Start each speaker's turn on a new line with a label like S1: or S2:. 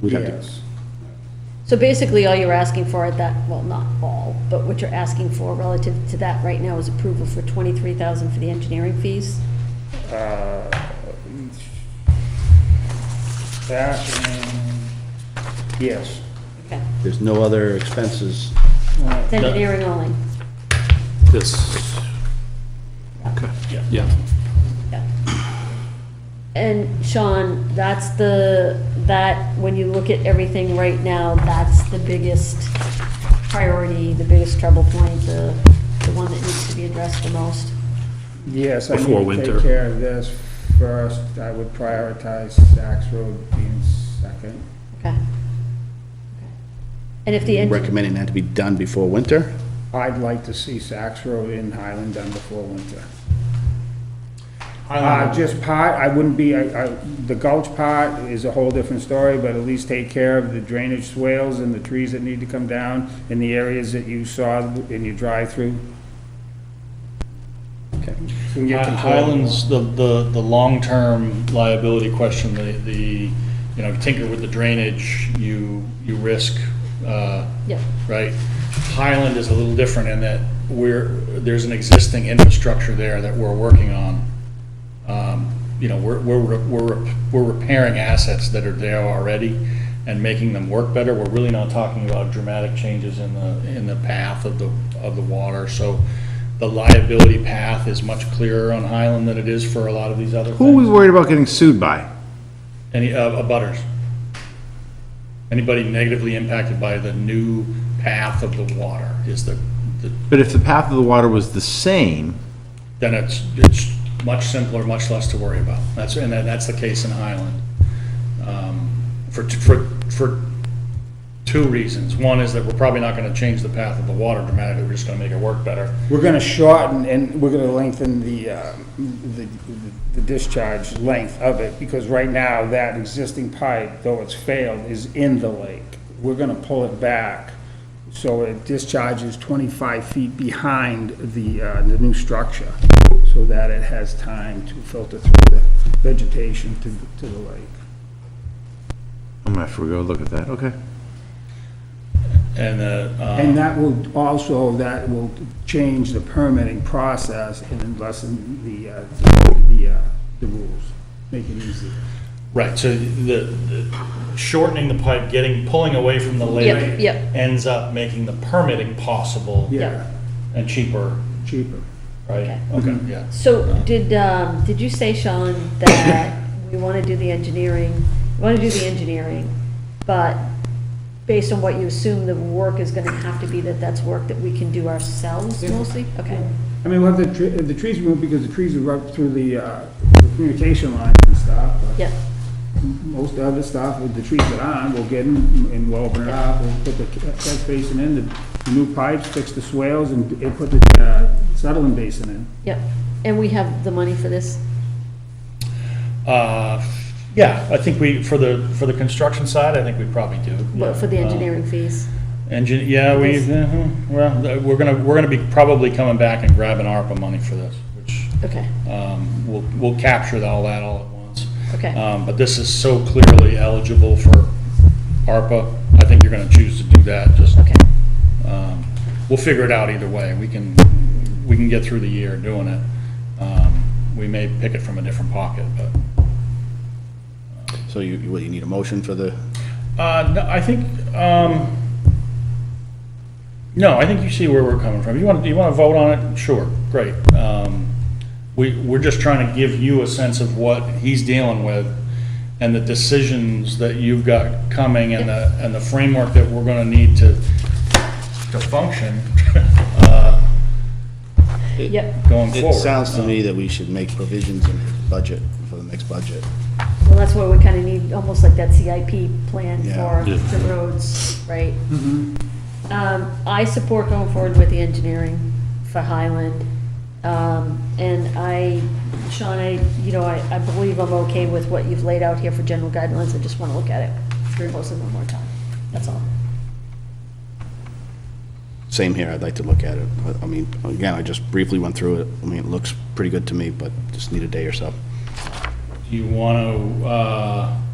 S1: We'd have to,
S2: Yes.
S3: So basically, all you're asking for at that, well, not all, but what you're asking for relative to that right now is approval for twenty-three thousand for the engineering fees?
S2: Uh, That and, yes.
S3: Okay,
S1: there's no other expenses.
S3: it's engineering only,
S4: This, okay, yeah.
S3: yeah. And Sean, that's the, that, when you look at everything right now, that's the biggest priority, the biggest trouble point, the, the one that needs to be addressed the most.
S2: Yes, I
S4: Before
S2: need to
S4: winter.
S2: take care of this first. I would prioritize Saks Road being second.
S3: Okay. Okay. And if the, engi-
S1: Recommending that to be done before winter.
S2: I'd like to see Saks Road in Highland done before winter. Uh, just part, I wouldn't be, I, I, the gulch part is a whole different story, but at least take care of the drainage swales and the trees that need to come down in the areas that you saw in your drive-through.
S1: Okay.
S2: We can get
S5: Hi-
S2: control.
S5: Uh, Highlands, the, the, the long-term liability question, the, the, you know, tinker with the drainage, you, you risk, uh,
S3: yeah,
S5: right? Highland is a little different in that we're, there's an existing infrastructure there that we're working on. Um, You know, we're, we're, we're, we're repairing assets that are there already and making them work better. We're really not talking about dramatic changes in the, in the path of the, of the water. So the liability path is much clearer on Highland than it is for a lot of these other things.
S6: Who are we worried about getting sued by?
S5: Any, uh, butters. Anybody negatively impacted by the new path of the water is the, the-
S6: But if the path of the water was the same,
S5: then it's, it's much simpler, much less to worry about. That's, and that- that's the case in Highland. Um, For, t- for, for two reasons. One is that we're probably not gonna change the path of the water dramatically, we're just gonna make it work better.
S2: We're gonna shorten and we're gonna lengthen the, uh, the the discharge length of it, because right now, that existing pipe, though it's failed, is in the lake. We're gonna pull it back, so it discharges twenty-five feet behind the, uh, the new structure, so that it has time to filter through the vegetation to, to the lake.
S6: I'm gonna have to go look at that, okay.
S5: And, uh, um,
S2: And that will also, that will change the permitting process and lessen the, uh, the, uh, the rules, make it easier.
S5: Right, so the, the shortening the pipe, getting, pulling away from the lake.
S3: Yep, yep.
S5: Ends up making the permitting possible.
S3: yeah.
S5: And cheaper,
S2: Cheaper.
S5: right? Okay, yeah.
S3: So did, um, did you say, Sean, that we want to do the engineering, we want to do the engineering, but based on what you assume the work is going to have to be, that that's work that we can do ourselves mostly? Okay,
S2: I mean, we'll have the, tre- the trees removed because the trees are up through the, uh, the communication lines and stuff. but
S3: yeah,
S2: Most of the stuff with the trees that aren't, we'll get them and we'll open it up, we'll put the catch basin in, the new pipes, fix the swales and, and put the, uh, settling basin in.
S3: yeah. And we have the money for this?
S5: Uh, yeah, I think we, for the, for the construction side, I think we probably do.
S3: But for the
S5: yeah.
S3: engineering fees?
S5: Engine, yeah, we,
S3: Yes.
S5: uh-huh, well, th- we're gonna, we're gonna be probably coming back and grabbing ARPA money for this, which,
S3: Okay,
S5: um, we'll, we'll capture all that all at once.
S3: okay,
S5: Um, but this is so clearly eligible for ARPA, I think you're gonna choose to do that, just,
S3: okay.
S5: um, we'll figure it out either way, we can, we can get through the year doing it. Um, we may pick it from a different pocket, but.
S1: So you, you- what, you need a motion for the,
S5: Uh, no, I think, um, no, I think you see where we're coming from. You want, you want to vote on it? Sure, great. Um, we, we're just trying to give you a sense of what he's dealing with and the decisions that you've got coming and the, and the framework that we're gonna need to, to function, uh,
S3: Yep,
S5: going
S1: it
S5: forward.
S1: sounds to me that we should make provisions in his budget for the next budget.
S3: well, that's what we kind of need, almost like that CIP plan
S1: Yeah.
S3: for the roads, right? Um, I support going forward with the engineering for Highland. Um, and I, Sean, I, you know, I, I believe I'm okay with what you've laid out here for general guidelines. I just want to look at it through most of them one more time. That's all.
S1: Same here, I'd like to look at it. But, I mean, again, I just briefly went through it. I mean, it looks pretty good to me, but just need a day or so.
S5: Do you want to, uh,